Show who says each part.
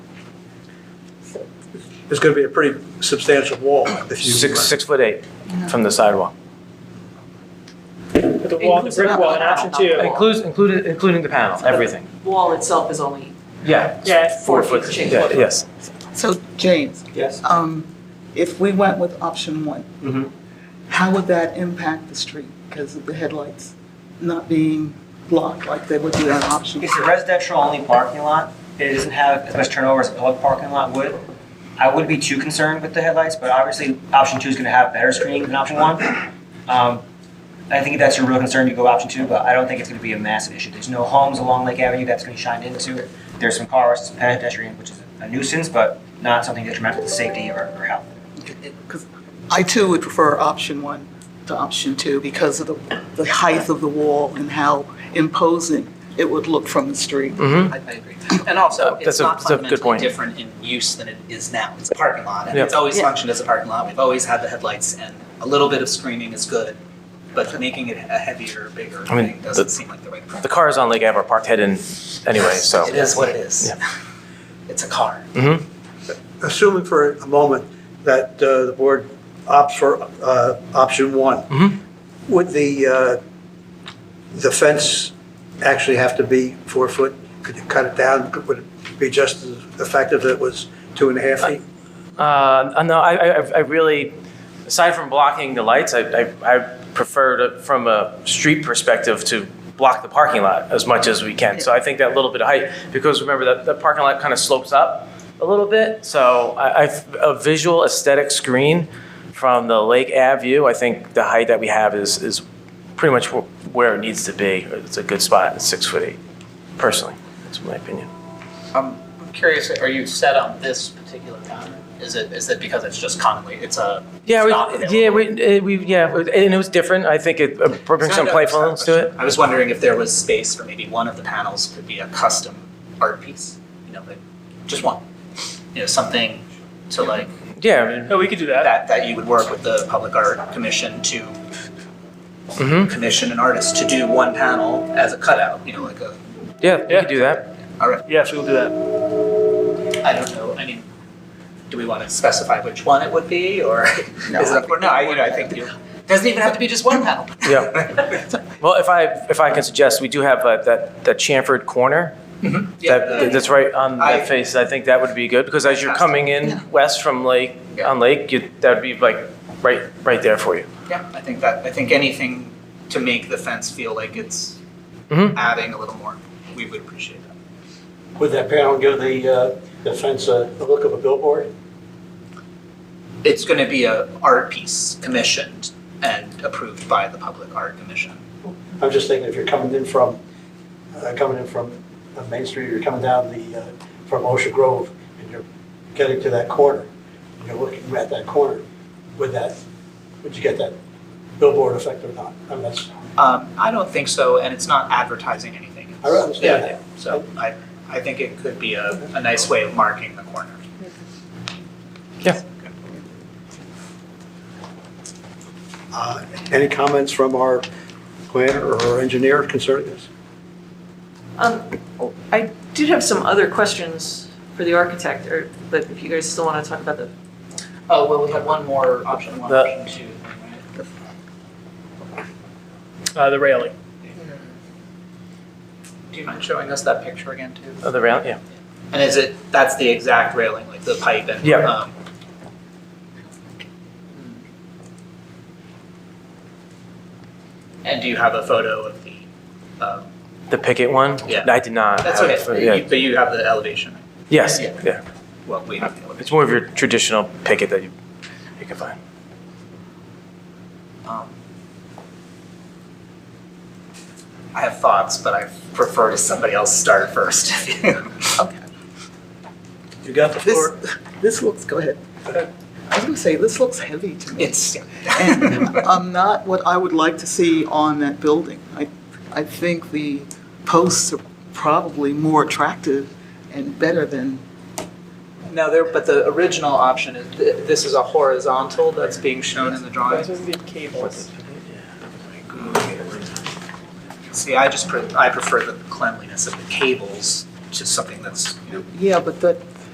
Speaker 1: It's going to be a pretty substantial wall if you.
Speaker 2: Six, six foot eight from the sidewalk.
Speaker 3: But The wall, the
Speaker 4: Includes
Speaker 3: brick
Speaker 4: not
Speaker 3: wall
Speaker 4: the
Speaker 3: in option
Speaker 4: panel.
Speaker 3: two.
Speaker 2: Includes, including, including the panel, everything.
Speaker 4: Wall itself is only
Speaker 2: Yeah.
Speaker 3: Yeah, it's
Speaker 4: four
Speaker 3: four
Speaker 4: feet
Speaker 3: feet.
Speaker 4: change.
Speaker 2: Yeah, yes.
Speaker 5: So James,
Speaker 1: Yes.
Speaker 5: um, if we went with option one,
Speaker 1: Mhm.
Speaker 5: how would that impact the street because of the headlights not being blocked like they would be on option?
Speaker 6: It's a residential-only parking lot. It doesn't have as much turnover as a public parking lot would. I wouldn't be too concerned with the headlights, but obviously, option two is going to have better screening than option one. Um, I think if that's your real concern, you go option two, but I don't think it's going to be a massive issue. There's no homes along Lake Avenue that's going to be shined into. There's some cars, some pedestrian, which is a nuisance, but not something detrimental to safety or or health.
Speaker 5: Because I too would prefer option one to option two because of the, the height of the wall and how imposing it would look from the street.
Speaker 2: Mm-hmm.
Speaker 7: I I agree. And also,
Speaker 2: Oh, That's
Speaker 7: it's
Speaker 2: a-
Speaker 7: not
Speaker 2: that's a good
Speaker 7: fundamentally
Speaker 2: point.
Speaker 7: different in use than it is now. It's a parking lot, and
Speaker 2: Yeah.
Speaker 7: it's always
Speaker 4: Yeah.
Speaker 7: functioned as a parking lot. We've always had the headlights, and a little bit of screening is good, but making it a heavier, bigger
Speaker 2: I mean,
Speaker 7: thing doesn't
Speaker 2: the-
Speaker 7: seem like the right approach.
Speaker 2: The cars on Lake Ave are parked head in anyway, so.
Speaker 7: It is what it is. It's a car.
Speaker 2: Mm-hmm.
Speaker 1: Assuming for a moment that uh, the board opts for uh, option one,
Speaker 2: Mhm.
Speaker 1: would the, uh, the fence actually have to be four foot? Could you cut it down? Could- Would it be just as effective if it was two and a half feet?
Speaker 2: Uh, no, I, I, I really, aside from blocking the lights, I, I, I prefer to, from a street perspective to block the parking lot as much as we can. So I think that little bit of height, because remember that the parking lot kind of slopes up a little bit. So I, I, a visual aesthetic screen from the Lake Ave view, I think the height that we have is, is pretty much wh- where it needs to be. It's a good spot, it's six foot eight, personally, that's my opinion.
Speaker 7: I'm I'm curious, are you set on this particular pattern? Is it, is it because it's just commonly, it's a,
Speaker 2: Yeah,
Speaker 7: It's not
Speaker 2: we,
Speaker 7: available.
Speaker 2: yeah, we, uh, we, yeah, and it was different. I think it uh, brings some playfulness to it.
Speaker 7: I was wondering if there was space for maybe one of the panels could be a custom art piece, you know, like, just one. You know, something to like,
Speaker 2: Yeah, I mean,
Speaker 3: No, we could do that.
Speaker 7: that, that you would work with the Public Art Commission to Mm-hmm.
Speaker 2: Mhm.
Speaker 7: commission an artist to do one panel as a cutout, you know, like a,
Speaker 2: yeah, we
Speaker 3: Yeah.
Speaker 2: could do that.
Speaker 7: all right,
Speaker 3: Yes, we will do that.
Speaker 7: I don't know, I mean, do we want to specify which one it would be, or is it up for, no, I, you know, I think you, doesn't even have to be just one panel.
Speaker 2: Yeah. Well, if I, if I can suggest, we do have uh, that, that chamfered corner.
Speaker 7: Mm-hmm. Yeah, uh,
Speaker 2: That, that's right on
Speaker 7: I-
Speaker 2: that face. I think that would be good because as you're coming in west from Lake,
Speaker 7: Yeah.
Speaker 2: on Lake, you, that'd be like right, right there for you.
Speaker 7: Yeah, I think that, I think anything to make the fence feel like it's
Speaker 2: Mhm.
Speaker 7: adding a little more, we would appreciate that.
Speaker 8: Would that panel give the, uh, the fence a a look of a billboard?
Speaker 7: It's gonna be a art piece commissioned and approved by the Public Art Commission.
Speaker 8: I'm just thinking if you're coming in from, uh, coming in from uh, Main Street, you're coming down the, uh, from Osha Grove, and you're getting to that corner, and you're looking at that corner, would that, would you get that billboard effect or not? I mean, that's,
Speaker 7: Um, I don't think so, and it's not advertising anything.
Speaker 8: I understand
Speaker 7: Yeah, So I, I think it could be a, a nice way of marking the corner.
Speaker 1: Uh, Any comments from our planner or engineer concerning this?
Speaker 4: Um, I did have some other questions for the architect, or, but if you guys still want to talk about the,
Speaker 7: Oh, well, we had one more option, one
Speaker 2: The-
Speaker 7: option two.
Speaker 3: Uh, the railing.
Speaker 7: Do you mind showing us that picture again too?
Speaker 2: Other round, yeah.
Speaker 7: And is it, that's the exact railing, like the pipe and?
Speaker 2: Yeah.
Speaker 7: um, And do you have a photo of the, um,
Speaker 2: The picket one?
Speaker 7: Yeah.
Speaker 2: I did not.
Speaker 7: that's
Speaker 2: have it
Speaker 7: okay,
Speaker 2: for-
Speaker 7: but
Speaker 2: yeah.
Speaker 7: you- but you have the elevation, right?
Speaker 2: Yes,
Speaker 7: Yeah.
Speaker 2: yeah.
Speaker 7: well, we have the elevation.
Speaker 2: It's more of your traditional picket that you, you can find.
Speaker 7: Um, I have thoughts, but I prefer to somebody else start first. Okay.
Speaker 1: You got the
Speaker 5: This,
Speaker 1: floor.
Speaker 5: this looks, go ahead. I was gonna say, this looks heavy to me.
Speaker 7: It's,
Speaker 5: And I'm not what I would like to see on that building. I, I think the posts are probably more attractive and better than,
Speaker 7: no, there, but the original option is, th- this is a horizontal that's being shown in the drawing.
Speaker 3: This is the cables.
Speaker 7: See, I just, pre- I prefer the cleanliness of the cables to something that's, you know,
Speaker 5: yeah, but that,